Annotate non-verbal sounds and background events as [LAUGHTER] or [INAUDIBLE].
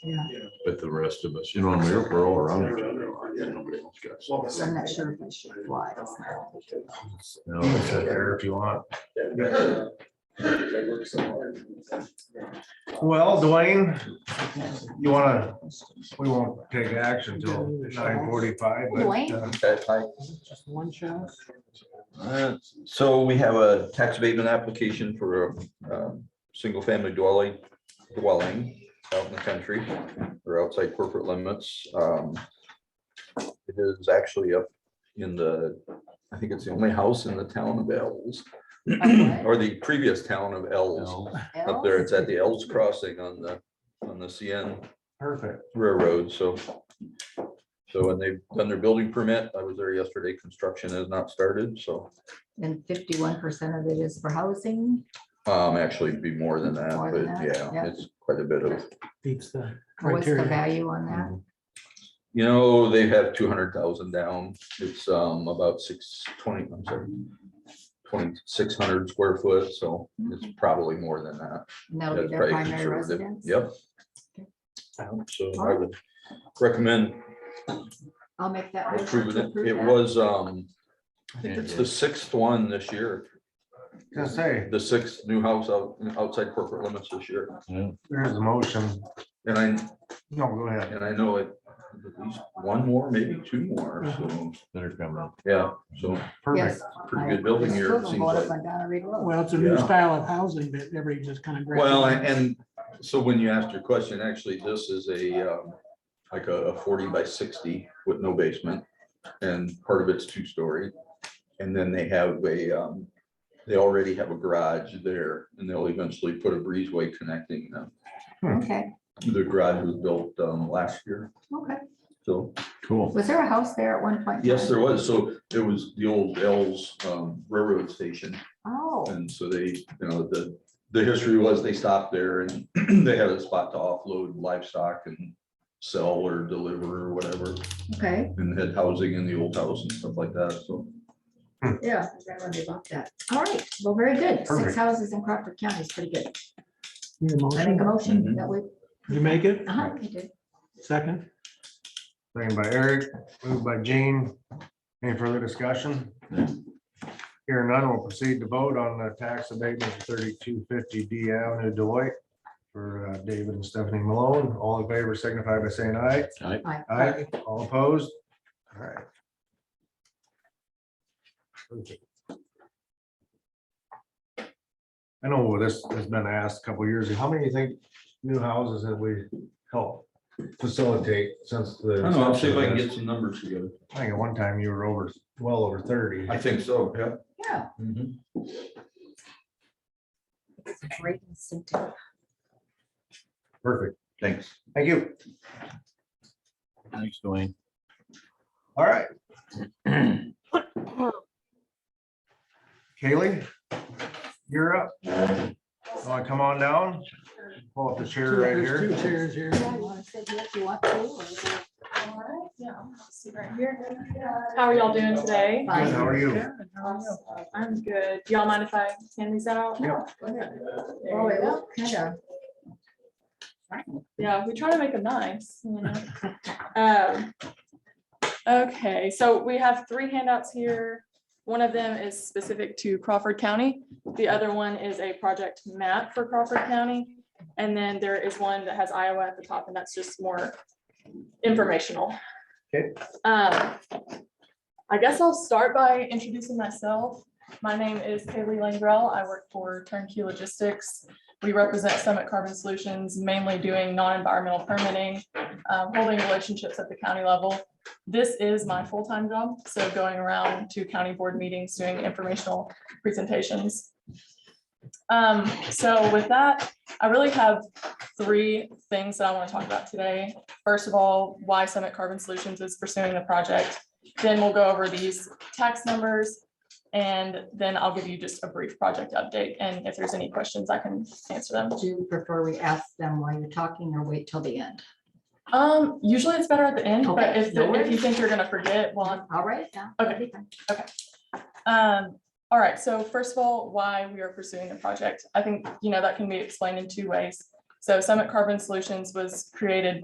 Yeah. but the rest of us, you know, I mean, we're all around each other. Yeah, nobody else got. Well, So I'm not sure if I should fly. It's not- No, it's out there if you want. Well, Dwayne, you wanna, we won't take action till nine forty-five, but uh, Dwayne? Okay, hi. Just one show. Uh, So we have a tax abatement application for a um, single-family dwelling, dwelling out in the country or outside corporate limits. Um, It is actually up in the, I think it's the only house in the town of Ells, what? or the previous town of Ells. Up there, it's at the Ells Crossing on the, on the CN perfect. railroad, so. So, and they've done their building permit. I was there yesterday. Construction has not started, so, And fifty-one percent of it is for housing. um, actually it'd be more than that, More but than that, yeah, yeah. it's quite a bit of. beats the What's the criteria. value on that? You know, they have two hundred thousand down. It's, um, about six twenty, I'm sorry. Twenty-six hundred square foot, so it's probably more than that. And that'll be Mm-hmm. That's their probably primary conservative. residence? Yep. So I would recommend I'll make that. motion approving to it. approve It that. was, um, I think it's the sixth one this year. Just say, the sixth new house out, outside corporate limits this year. there's a motion. And I, No, go ahead. and I know it, at least one more, maybe two more, so, They're coming up. yeah, so Perfect. Yes. pretty I- good building I here, still it don't seems vote like. if I'm down a red road. Well, it's a new Yeah. style of housing that everybody just kind of. Well, and, and so when you asked your question, actually, this is a, um, like a a forty by sixty with no basement. And part of it's two-story. And then they have a, um, they already have a garage there and they'll eventually put a breezeway connecting them. Okay, The garage was built, um, last year, okay. so. Cool. Was there a house there at one point? in Yes, time? there was. So it was the old Ells um, Railroad Station. Oh, And so they, you know, the, the history was they stopped there and [CLEARS THROAT] they had a spot to offload livestock and sell or deliver or whatever, okay, and had housing in the old house and stuff like that. So yeah, I forgot when they bought that. All right, well, very good. Six Perfect. houses in Crawford County is pretty good. Need a I make a motion? motion Mhm. that we. You make it? Uh-huh, you did. Second? Second by Eric, moved by Jean. Any further discussion? Here none will proceed to vote on the tax abatement thirty-two fifty D Avenue Deloitte for uh, David and Stephanie Malone. All in favor signify by saying aye. Aye. Aye. All opposed? All right. Perfect. I know this has been asked a couple years ago. How many you think new houses have we helped facilitate since the? I don't know, I'll see if I can get some numbers together. I think at one time you were over, well over thirty. I think so, yeah. Yeah. Mhm. it's a Great incentive. Perfect. Thanks. Thank you. Thanks, Dwayne. All right. Kaylee, you're up. Want to come on down? Pull up the chair right There's here. Two chairs here. Yeah, you wanna sit here if you want to, or is it How are y'all doing today? fine? Good, how are you? I'm good. Do y'all mind if I hand these out? Yeah. Oh, it was kind of. Yeah, we try to make them nice. you know. Um, Okay, so we have three handouts here. One of them is specific to Crawford County. The other one is a project map for Crawford County. And then there is one that has Iowa at the top, and that's just more informational. Okay. Um, I guess I'll start by introducing myself. My name is Kaylee Langrell. I work for Turnkey Logistics. We represent Summit Carbon Solutions, mainly doing non-environmental permitting, um, holding relationships at the county level. This is my full-time job, so going around to county board meetings, doing informational presentations. Um, So with that, I really have three things that I want to talk about today. First of all, why Summit Carbon Solutions is pursuing the project. Then we'll go over these tax numbers, and then I'll give you just a brief project update, and if there's any questions, I can answer them. Do you prefer we ask them while you're talking or wait till the end? Um, usually it's better at the end, but Okay, if, no if you worries. think you're gonna forget, well, All right, yeah. okay. Um, all right, so first of all, why we are pursuing the project. I think, you know, that can be explained in two ways. So Summit Carbon Solutions was created